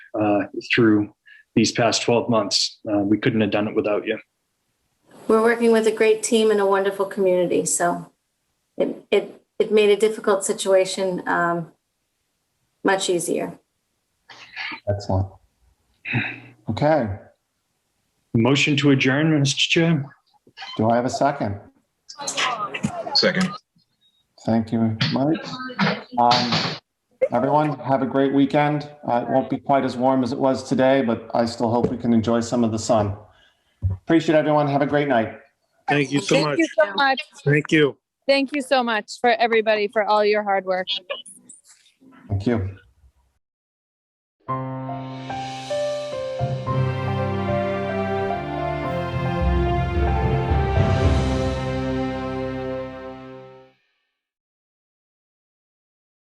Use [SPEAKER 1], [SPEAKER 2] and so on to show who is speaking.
[SPEAKER 1] uh, through these past 12 months. Uh, we couldn't have done it without you.
[SPEAKER 2] We're working with a great team and a wonderful community, so it, it, it made a difficult situation, um, much easier.
[SPEAKER 3] Excellent. Okay,
[SPEAKER 1] Motion to adjourn, Mr. Chair.
[SPEAKER 3] do I have a second?
[SPEAKER 4] Second.
[SPEAKER 3] Thank you, Mike. Um, Everyone, have a great weekend. Uh, It won't be quite as warm as it was today, but I still hope we can enjoy some of the sun. Appreciate everyone. Have a great night.
[SPEAKER 5] Thank you so
[SPEAKER 6] Thank
[SPEAKER 5] much.
[SPEAKER 6] you so much.
[SPEAKER 5] Thank you.
[SPEAKER 6] Thank you so much for everybody for all your hard work.
[SPEAKER 3] Thank you.